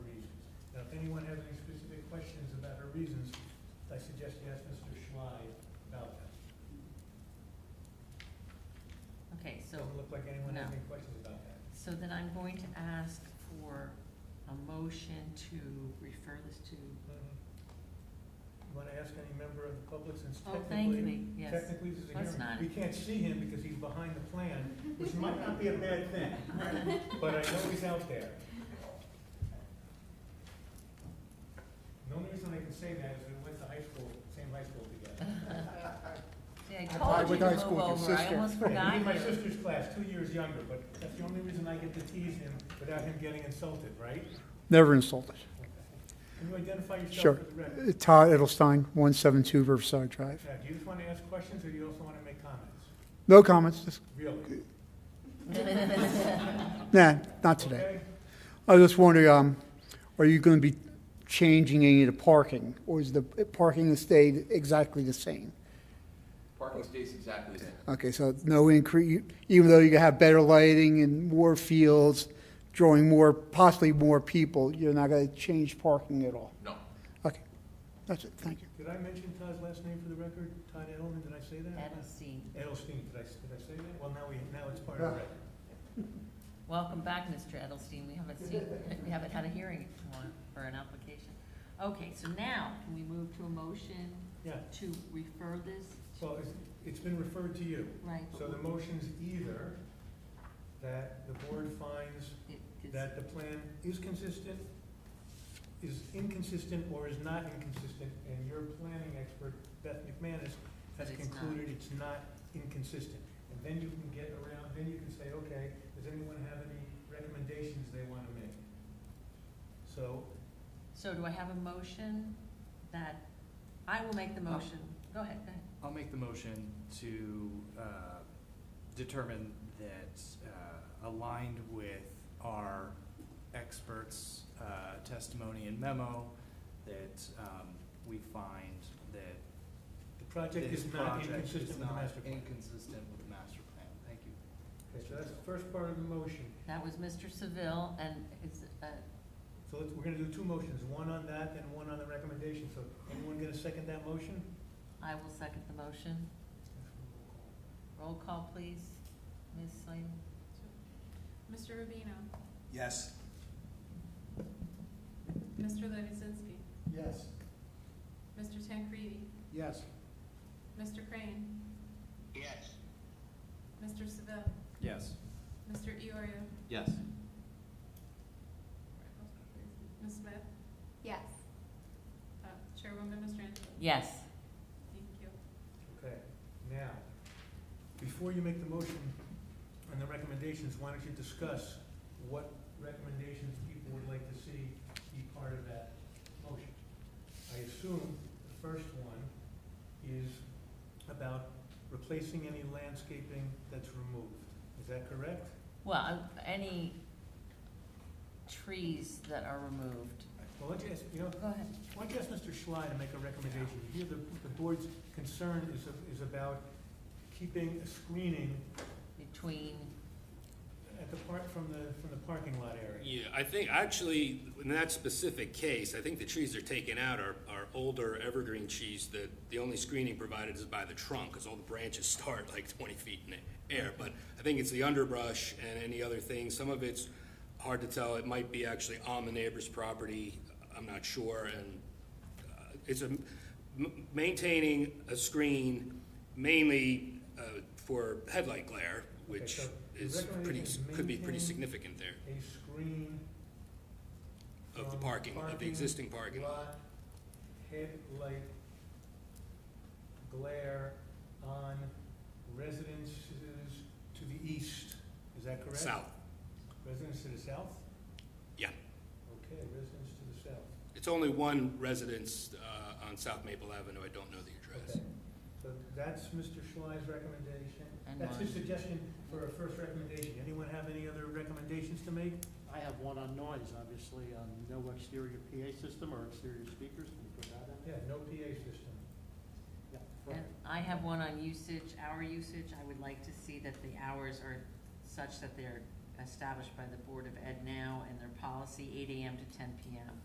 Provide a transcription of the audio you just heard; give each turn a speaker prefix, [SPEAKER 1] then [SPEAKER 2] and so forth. [SPEAKER 1] so,
[SPEAKER 2] Doesn't look like anyone has
[SPEAKER 1] no.
[SPEAKER 2] any questions about that.
[SPEAKER 1] so then I'm going to ask for a motion to refer this to,
[SPEAKER 2] Mhm. You wanna ask any member of the public since
[SPEAKER 1] oh, thank
[SPEAKER 2] technically,
[SPEAKER 1] me, yes.
[SPEAKER 2] technically this is a
[SPEAKER 1] That's
[SPEAKER 2] hearing.
[SPEAKER 1] not
[SPEAKER 2] We can't see him because he's behind the plan, which might not be a bad thing, but I know he's out there. The only reason I can say that is we went to high school, same high school together.
[SPEAKER 1] See, I
[SPEAKER 3] I
[SPEAKER 1] told you
[SPEAKER 3] went
[SPEAKER 1] to
[SPEAKER 3] to high school
[SPEAKER 1] move
[SPEAKER 3] with your
[SPEAKER 1] over, I
[SPEAKER 3] sister.
[SPEAKER 1] almost
[SPEAKER 2] Yeah,
[SPEAKER 1] forgot
[SPEAKER 2] He's in my
[SPEAKER 1] you.
[SPEAKER 2] sister's class, two years younger, but that's the only reason I get to tease him without him getting insulted, right?
[SPEAKER 3] Never insulted.
[SPEAKER 2] Can you identify
[SPEAKER 3] Sure.
[SPEAKER 2] yourself for the record?
[SPEAKER 3] Todd Edelstein, 172 Riverside Drive.
[SPEAKER 2] Now, Uh, do you just want to ask questions, or do you also want to make comments?
[SPEAKER 3] No comments, just,
[SPEAKER 2] Really?
[SPEAKER 3] nah, not today.
[SPEAKER 2] Okay?
[SPEAKER 3] I was just wondering, um, are you going to be changing any of the parking? Or is the parking stayed exactly the same?
[SPEAKER 4] Parking stays exactly the same.
[SPEAKER 3] Okay, so no increase, even though you have better lighting and more fields, drawing more, possibly more people, you're not going to change parking at all?
[SPEAKER 4] No.
[SPEAKER 3] Okay, that's it, thank you.
[SPEAKER 2] Did I mention Todd's last name for the record? Todd Edelman, did I say that?
[SPEAKER 1] Edelstein,
[SPEAKER 2] Edelstein, did I, did I say that? Well, now we, now it's part
[SPEAKER 3] Ah.
[SPEAKER 2] of the record.
[SPEAKER 1] welcome back, Mr. Edelstein, we haven't seen, we haven't had a hearing for, for an application. Okay, so now, can we move to a motion
[SPEAKER 2] Yeah,
[SPEAKER 1] to refer this,
[SPEAKER 2] well, it's, it's been referred to you.
[SPEAKER 1] right?
[SPEAKER 2] So the motion's either that the board finds
[SPEAKER 1] It- it's-
[SPEAKER 2] that the plan is consistent, is inconsistent, or is not inconsistent, and your planning expert, Beth McManus, has
[SPEAKER 1] That it's not.
[SPEAKER 2] concluded it's not inconsistent. And then you can get around, then you can say, okay, does anyone have any recommendations they wanna make? So,
[SPEAKER 1] So do I have a motion that, I will make the motion, go ahead, go ahead.
[SPEAKER 5] I'll make the motion to uh, determine that uh, aligned with our experts' uh, testimony and memo, that um, we find that
[SPEAKER 2] the project
[SPEAKER 5] this
[SPEAKER 2] is not
[SPEAKER 5] project
[SPEAKER 2] inconsistent
[SPEAKER 5] is
[SPEAKER 2] with the
[SPEAKER 5] not
[SPEAKER 2] master plan.
[SPEAKER 5] Inconsistent with the master plan, thank you.
[SPEAKER 2] Okay, so that's the first part of the motion.
[SPEAKER 1] That was Mr. Seville, and it's, uh,
[SPEAKER 2] So let's, we're gonna do two motions, one on that and one on the recommendation. So anyone gonna second that motion?
[SPEAKER 1] I will second the motion. Roll call, please. Ms. Slayton?
[SPEAKER 6] Mr. Rubino.
[SPEAKER 4] Yes.
[SPEAKER 6] Mr. Lizinski.
[SPEAKER 2] Yes.
[SPEAKER 6] Mr. Tancredi.
[SPEAKER 5] Yes.
[SPEAKER 6] Mr. Crane.
[SPEAKER 4] Yes.
[SPEAKER 6] Mr. Seville.
[SPEAKER 5] Yes.
[SPEAKER 6] Mr. Iorio.
[SPEAKER 4] Yes.
[SPEAKER 6] Ms. Smith.
[SPEAKER 7] Yes.
[SPEAKER 6] Uh, Chairwoman, Mr. Angelo.
[SPEAKER 1] Yes.
[SPEAKER 6] Thank you.
[SPEAKER 2] Okay, now, before you make the motion on the recommendations, why don't you discuss what recommendations people would like to see be part of that motion? I assume the first one is about replacing any landscaping that's removed. Is that correct?
[SPEAKER 1] Well, I- any trees that are removed.
[SPEAKER 2] Well, let's ask, you know,
[SPEAKER 1] Oh, Go ahead.
[SPEAKER 2] Why don't you ask Mr. Schley to make a recommendation? Here, the, the board's concern is, is about keeping a screening
[SPEAKER 1] Between,
[SPEAKER 2] at the park, from the, from the parking lot area.
[SPEAKER 8] Yeah, I think, actually, in that specific case, I think the trees they're taking out are, are older evergreen trees that the only screening provided is by the trunk, because all the branches start like twenty feet in the air. But I think it's the underbrush and any other things. Some of it's hard to tell. It might be actually on the neighbor's property. I'm not sure, and uh, it's a, m- maintaining a screen mainly uh, for headlight glare, which
[SPEAKER 2] so the
[SPEAKER 8] is pretty,
[SPEAKER 2] recommendation is
[SPEAKER 8] could be pretty
[SPEAKER 2] maintain-
[SPEAKER 8] significant there,
[SPEAKER 2] A screen.
[SPEAKER 8] of the
[SPEAKER 2] from
[SPEAKER 8] Um, parking, of the existing parking lot.
[SPEAKER 2] lot, Headlight glare on residences to the east, is that correct?
[SPEAKER 8] South,
[SPEAKER 2] Residents to the south?
[SPEAKER 8] yeah.
[SPEAKER 2] Okay, residents to the south.
[SPEAKER 8] It's only one residence uh, on South Maple Avenue. I don't know the address.
[SPEAKER 2] Okay, So that's Mr. Schley's recommendation.
[SPEAKER 1] And
[SPEAKER 2] That's his
[SPEAKER 1] mine.
[SPEAKER 2] suggestion for a first recommendation. Anyone have any other recommendations to make?
[SPEAKER 9] I have one on noise, obviously, on no exterior PA system or exterior speakers, can we put that
[SPEAKER 2] Yeah,
[SPEAKER 9] in?
[SPEAKER 2] no PA system.
[SPEAKER 9] Yeah.
[SPEAKER 1] and I have one on usage, hour usage. I would like to see that the hours are such that they're established by the Board of Ed now and their policy, eight AM to ten PM.